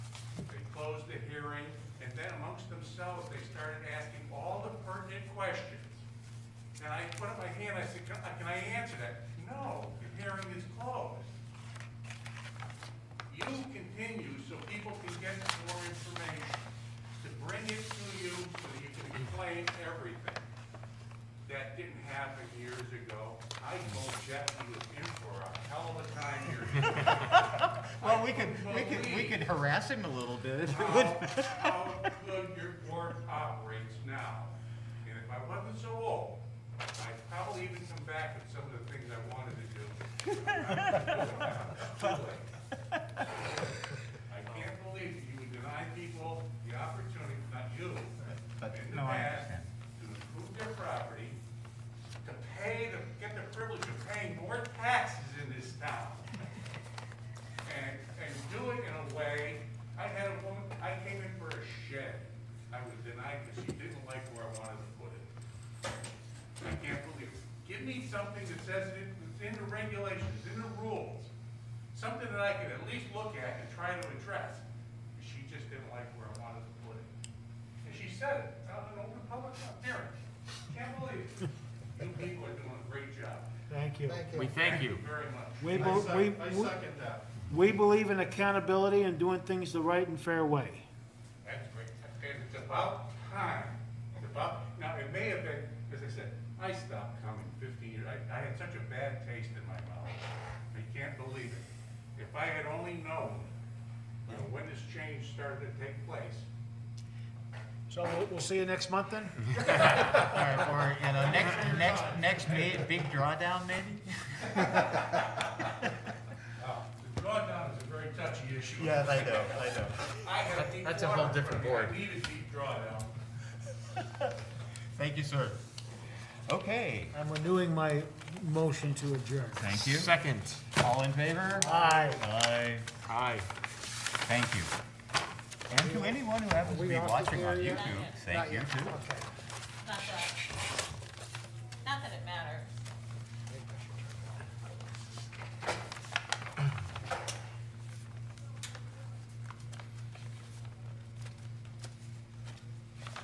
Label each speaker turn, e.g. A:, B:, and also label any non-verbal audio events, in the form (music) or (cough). A: closed the hearing, and then amongst themselves, they started asking all the pertinent questions. And I put up my hand, I said, "Can I- can I answer that? No, the hearing is closed. You continue so people can get more information, to bring it to you so that you can explain everything. That didn't happen years ago. I told Jeff he was in for a hell of a time here.
B: Well, we could, we could, we could harass him a little bit. (laughs)
A: How, how good your board operates now. And if I wasn't so old, I'd probably even come back with some of the things I wanted to do. I can't believe you would deny people the opportunity, not you,
B: But-
A: in the
B: no, I
A: past,
B: understand.
A: to improve their property, to pay, the get the privilege of paying more taxes in this town. And, and do it in a way, I had a woman, I came in for a shed, I was denied because she didn't like where I wanted to put it. I can't believe it. Give me something that says it, it's in the regulations, in the rules, something that I can at least look at and try to address. She just didn't like where I wanted to put it. And she said it, out in open public, hearing. Can't believe it. You people are doing a great job.
C: Thank you.
D: We thank you.
A: Very much.
C: We, be- we, we-
A: that.
C: we believe in accountability and doing things the right and fair way.
A: That's great. And it's about time. It's about, now, it may have been, as I said, I stopped coming fifteen years. I, I had such a bad taste in my mouth. I can't believe it. If I had only known, you know, when this change started to take place.
C: So we'll, we'll see you next month then?
B: Mm-hmm. Or, or, you know, next, next, next ma- big drawdown maybe?
A: Uh, The drawdown is a very touchy issue.
B: I know, I know.
A: I had a deep
D: That's a whole
A: water
D: different
A: problem.
D: board.
A: I need a deep drawdown.
B: Thank you, sir. Okay,
C: I'm renewing my motion to adjourn.
B: thank you.
D: Second.
B: All in favor?
C: Aye.
B: Aye.
D: Aye.
B: Thank you. And to anyone who happens to be watching on YouTube, thank you too.
C: Okay.
E: Not that.